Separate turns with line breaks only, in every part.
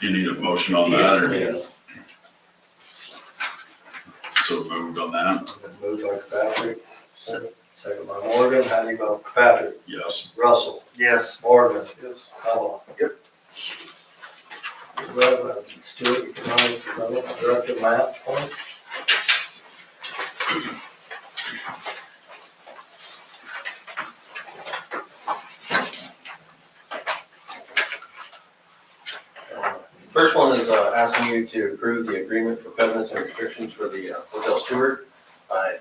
You need a motion on that or so moved on that?
Moved by Patrick, second by Morgan, how do you vote? Patrick,
Yes.
Russell,
Yes.
Morgan. Yes. Cobble. Yep. Stewart, Economic Development Director, Matt Point.
First one is uh, asking you to approve the agreement for covenants and restrictions for the uh, hotel steward. I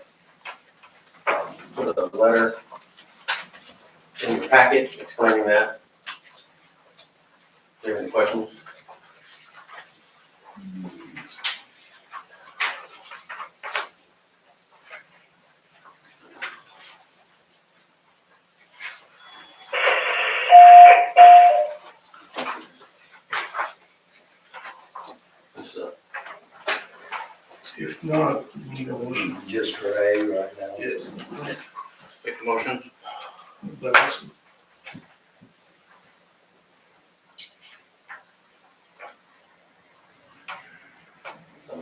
um, put a letter in your packet explaining that. Do you have any questions? This, uh,
If not, we need a motion,
Just for A right now.
yes,
Make the motion.
that's,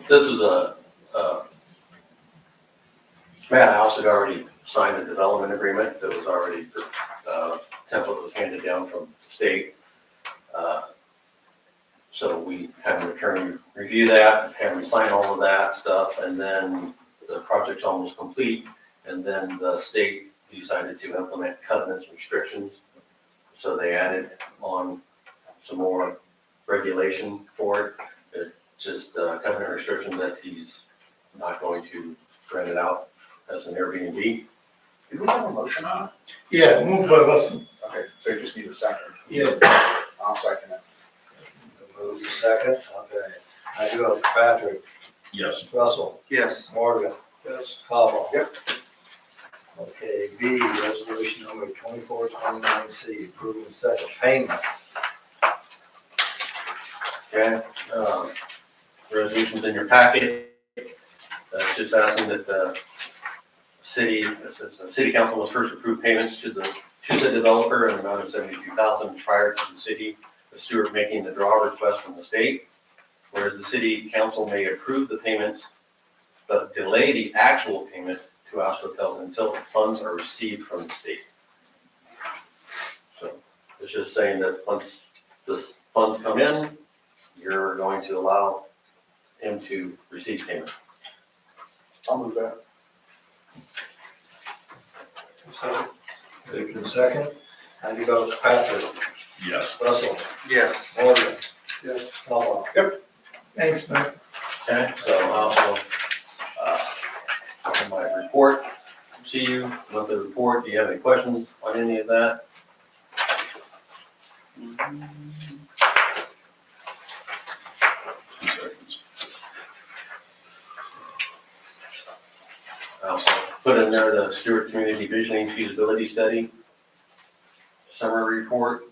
This is a, uh, Matt House had already signed a development agreement that was already, uh, template was handed down from the state. Uh, So we have him return, review that, have him sign all of that stuff, and then the project's almost complete. And then the state decided to implement covenants restrictions. So they added on some more regulation for it just uh, covenant restriction that he's not going to rent it out as an Airbnb.
Did we have a motion on it?
yeah, moved by Russell,
Okay, so you just need a second.
yes,
I'll second it.
Move to second, okay. How do you vote? Patrick,
Yes.
Russell,
Yes.
Morgan.
yes,
Cobble.
Yep.
Okay, B, resolution number twenty-four twenty-nine C, approving second payment.
Okay, um, resolutions in your packet. Uh, it's just asking that the city, it says the city council must first approve payments to the, to the developer in the amount of seventy-two thousand prior to the city of Stewart making the draw request from the state. Whereas the city council may approve the payments, but delay the actual payment to Ash Hotels until the funds are received from the state. So it's just saying that once the funds come in, you're going to allow him to receive payment.
I'll move that.
So, Moved in second, how do you vote? Patrick,
Yes.
Russell,
Yes.
Morgan,
yes,
Cobble.
thanks, man.
Okay, so I also, uh, have my report to you, with the report, do you have any questions on any of that?
Two seconds.
I also put in there the Stewart Community Visioning Feasibility Study summary report.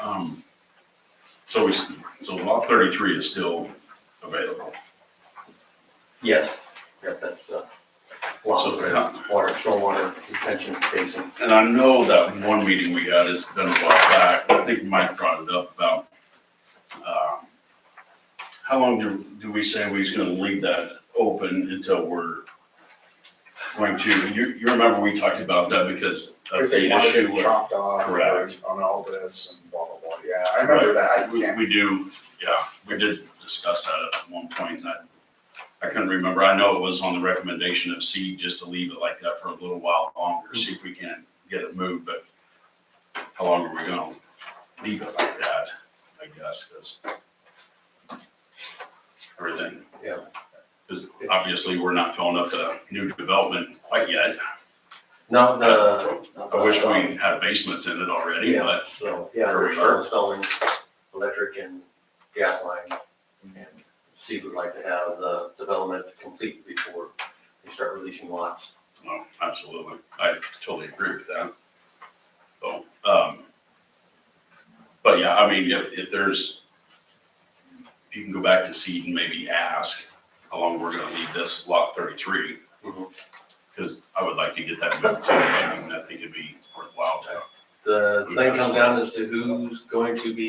Um, so we, s- so lot thirty-three is still available.
Yes. Yep, that's the lot of the water, stormwater retention basin.
And I know that one meeting we had, it's been a while back, but I think Mike brought it up about, um, how long do, do we say we're gonna leave that open until we're going to, you, you remember we talked about that because of
Because they
the
wanted
issue
it
with,
chopped off
Correct.
on all this and blah, blah, blah. Yeah, I remember that. I
we,
can't,
we do, yeah, we did discuss that at one point, and I, I couldn't remember, I know it was on the recommendation of C just to leave it like that for a little while longer, see if we can get it moved, but how long are we gonna leave it like that, I guess, cause everything.
Yeah.
Cause obviously, we're not filling up the new development quite yet,
Not, uh.
I wish we had basements in it already,
Yeah.
but,
So, yeah,
There we
we're still installing electric and gas lines. And Steve would like to have the development complete before they start releasing lots.
no, absolutely, I totally agree with that. So, um, but yeah, I mean, if, if there's, if you can go back to seed and maybe ask how long we're gonna leave this lot thirty-three.
Mhm.
Cause I would like to get that moved too, I mean, I think it'd be worthwhile to
The thing comes down as to who's going to be